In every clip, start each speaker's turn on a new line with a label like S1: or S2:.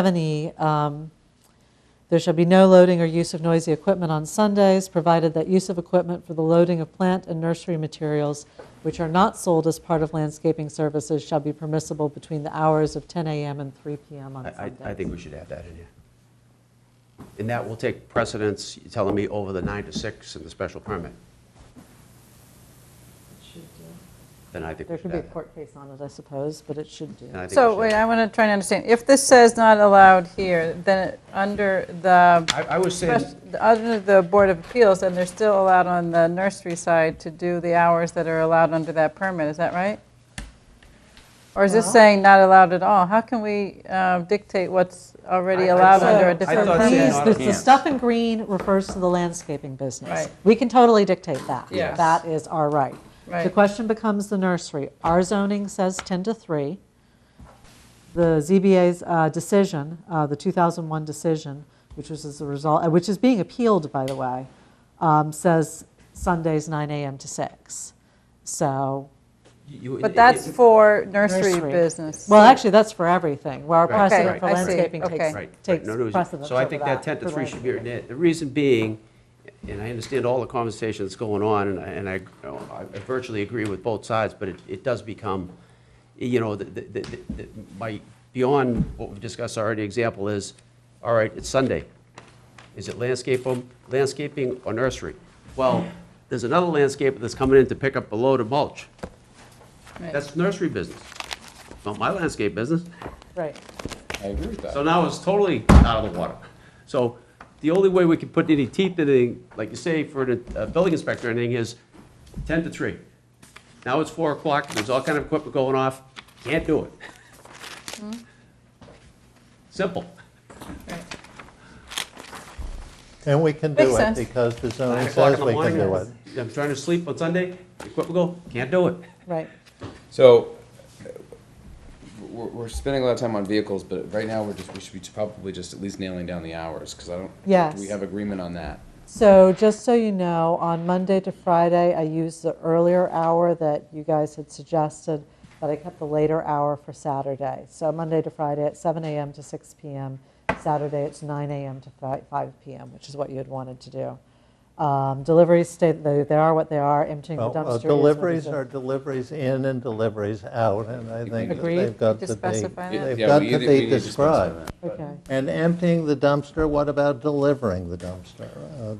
S1: 70, um, there shall be no loading or use of noisy equipment on Sundays, provided that use of equipment for the loading of plant and nursery materials, which are not sold as part of landscaping services, shall be permissible between the hours of 10 a.m. and 3 p.m. on
S2: I, I-
S1: Sundays.
S2: I think we should add that in here. And that will take precedence, you're telling me, over the nine to six and the special permit. Then I think
S1: There
S2: we should
S1: could be a
S2: add that.
S1: court case on it, I suppose, but it should do.
S2: Then I think we
S3: So,
S2: should
S3: wait, I
S2: add
S3: want to try and understand. If this says not allowed here, then it- under the,
S2: that. I, I was saying,
S3: spec- under the Board of Appeals, then they're still allowed on the nursery side to do the hours that are allowed under that permit, is that right? Or is this
S1: Well-
S3: saying not allowed at all? How can we um, dictate what's already
S2: I- I
S3: allowed
S2: thought-
S3: under
S2: I
S3: a different
S2: thought uh, saying
S3: permit?
S1: These-
S2: not
S1: the- The
S4: allowed.
S1: stuff in green refers to the landscaping business.
S3: Right.
S1: We can totally dictate that.
S3: Yes.
S1: That is our right. The
S3: Right.
S1: question becomes the nursery. Our zoning says 10 to 3. The ZBA's uh, decision, uh, the 2001 decision, which was as a result, uh, which is being appealed, by the way, um, says Sundays 9 AM to 6. So,
S2: you.
S3: But that's
S2: it-
S3: for nursery
S1: Nursery.
S3: business.
S1: well, actually, that's for everything, where our
S2: Right. Okay,
S1: precedent for
S2: I see.
S1: landscaping
S3: Okay.
S1: takes
S2: Right, right.
S1: takes
S2: No, no, it's-
S1: precedence
S2: So I
S1: over
S2: think that 10 to
S1: for
S2: 3 should be,
S1: landscaping.
S2: written in. the reason being, and I understand all the conversation that's going on, and I- and I you know, I virtually agree with both sides, but it, it does become, you know, the, the- the, the- my, beyond what we've discussed already, example is, all right, it's Sunday. Is it landscape, um, landscaping or nursery? Well, there's another landscaper that's coming in to pick up a load of mulch.
S3: Right.
S2: That's nursery business, not my landscape business.
S1: Right.
S4: I agree with that.
S2: So now it's totally out of the water. So the only way we can put any teeth in it, like you say, for the uh, building inspector or anything, is 10 to 3. Now it's 4 o'clock, there's all kind of equipment going off, can't do it. Simple.
S5: And we can
S3: Makes
S5: do it
S3: sense.
S5: because the
S2: Nine
S5: zoning
S2: o'clock
S5: says
S2: in the
S5: we can do it.
S2: morning, I'm trying to sleep on Sunday, equipment go, can't do it.
S1: Right.
S4: So, uh, we're, we're spending a lot of time on vehicles, but right now, we're just, we should be probably just at least nailing down the hours, because I don't.
S1: Yes.
S4: Do we have agreement on that?
S1: So just so you know, on Monday to Friday, I used the earlier hour that you guys had suggested, but I kept the later hour for Saturday. So Monday to Friday at 7 a.m. to 6 p.m. Saturday it's 9 a.m. to fi- 5 p.m., which is what you had wanted to do. Um, deliveries stay they, they are what they are. Emptying
S5: Well,
S1: the
S5: uh,
S1: dumpster. is what it
S5: Deliveries
S1: is.
S5: are deliveries in and deliveries out, and I think that
S1: Agreed.
S5: they've got
S3: Just
S5: to be,
S3: specify that.
S5: they've
S4: Yeah,
S5: got
S4: we
S5: to
S4: either- we
S5: be
S4: need to specify
S5: described.
S4: that.
S1: Okay.
S5: And emptying the dumpster, what about delivering the dumpster? Uh,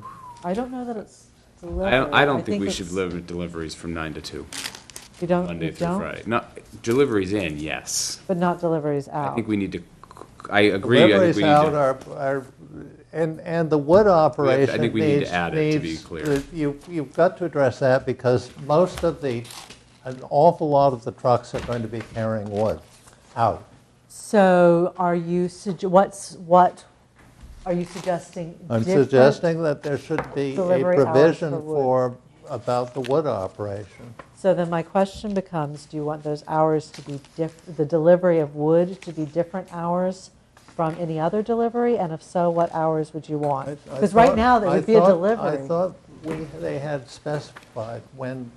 S1: I don't know that it's.
S6: I don't, I
S1: delivery.
S6: don't think we should
S1: it's-
S6: limit deliveries from nine to two,
S1: You don't.
S6: Monday
S1: you
S6: through
S1: don't?
S6: Friday. Not, deliveries in, yes.
S1: But not deliveries out.
S6: I think we need to, I agree, I think
S5: Deliveries
S6: we
S5: out
S6: need
S5: are, are, and, and the wood operation
S6: think we need to
S5: needs,
S6: add it, to be
S5: needs-
S6: clear.
S5: the- You, you've got to address that because most of the, an awful lot of the trucks are going to be carrying wood out.
S1: So are you, sugge- what's, what, are you suggesting?
S5: I'm
S1: different-
S5: suggesting that there should be a
S1: delivery hours
S5: provision
S1: for wood.
S5: for, about the wood operation.
S1: So then my question becomes, do you want those hours to be diff, the delivery of wood to be different hours from any other delivery? And if so, what hours would you
S5: I- I
S1: want? Because right
S5: thought-
S1: now, there
S5: I
S1: would be a
S5: thought- I
S1: delivery.
S5: thought we, they had specified when,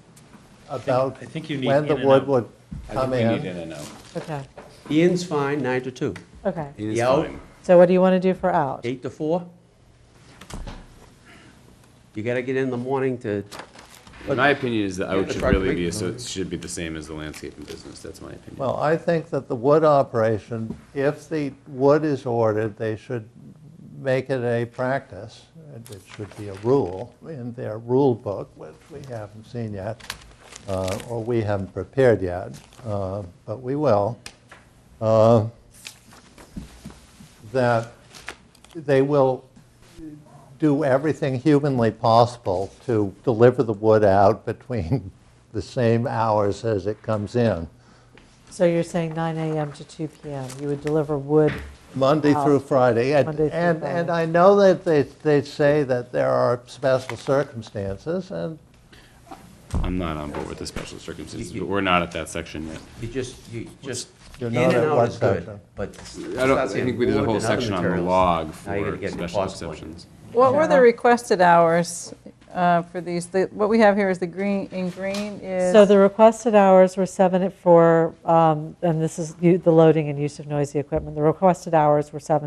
S5: about,
S7: I think you need
S5: when the
S7: in and
S5: wood
S7: out.
S5: would
S6: to, I
S5: come
S6: think we need
S5: in.
S6: in and out.
S1: Okay,
S2: The in's fine, 9 to 2.
S1: okay.
S6: It is
S2: The out-
S6: fine.
S1: So what do you want to do for out?
S2: 8 to 4. You gotta get in the morning to,
S6: My opinion is that out
S2: the
S6: should
S2: truck
S6: really
S2: rate-
S6: be, so it should be the same as the landscaping business, that's my opinion.
S5: Well, I think that the wood operation, if the wood is ordered, they should make it a practice, and it should be a rule in their rule book, which we haven't seen yet, uh, or we haven't prepared yet, uh, but we will, uh, that they will do everything humanly possible to deliver the wood out between the same hours as it comes in.
S1: So you're saying 9 AM to 2 PM, you would deliver wood,
S5: Monday
S1: Wow.
S5: through Friday. and-
S1: Monday through
S5: And,
S1: Friday.
S5: and I know that they, they say that there are special circumstances, and
S6: I'm not on board with the special circumstances, but we're not at that section yet.
S2: you just, you just,
S5: You're
S2: in
S5: not
S2: and
S5: at
S2: out
S5: one
S2: is good,
S5: section.
S2: but.
S6: I don't, I think we did a whole section on the log
S2: Now you're gonna
S6: for
S2: get into
S6: special
S2: cost point.
S6: exceptions.
S3: What were the requested hours uh, for these. The- What we have here is the green, in green is.
S1: So the requested hours were seven at four, um, and this is u- the loading and use of noisy equipment. The requested hours were seven